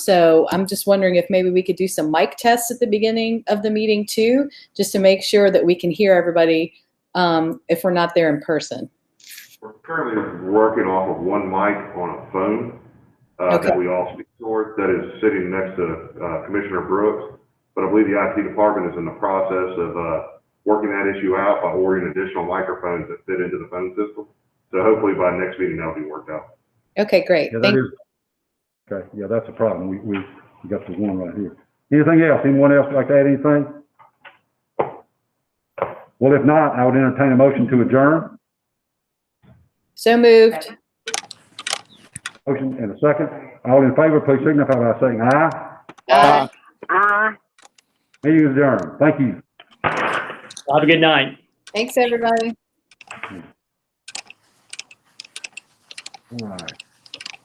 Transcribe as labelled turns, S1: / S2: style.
S1: So I'm just wondering if maybe we could do some mic tests at the beginning of the meeting too, just to make sure that we can hear everybody um, if we're not there in person.
S2: We're currently working off of one mic on a phone uh, that
S1: Okay.
S2: we all speak toward, that is sitting next to uh, Commissioner Brooks. But I believe the IT department is in the process of uh, working that issue out by ordering additional microphones that fit into the phone system. So hopefully by next meeting, that'll be worked out.
S1: Okay, great.
S3: Yeah, that
S1: Thank
S3: is, okay, yeah, that's a problem. We, we, we got the one right here. Anything else? Anyone else like to add anything? Well, if not, I would entertain a motion to adjourn.
S1: So moved.
S3: Motion and a second. All in favor, please signify by saying aye.
S1: Bye.
S3: Meeting is adjourned. Thank you.
S4: Have a good night.
S1: Thanks, everybody.
S3: All right.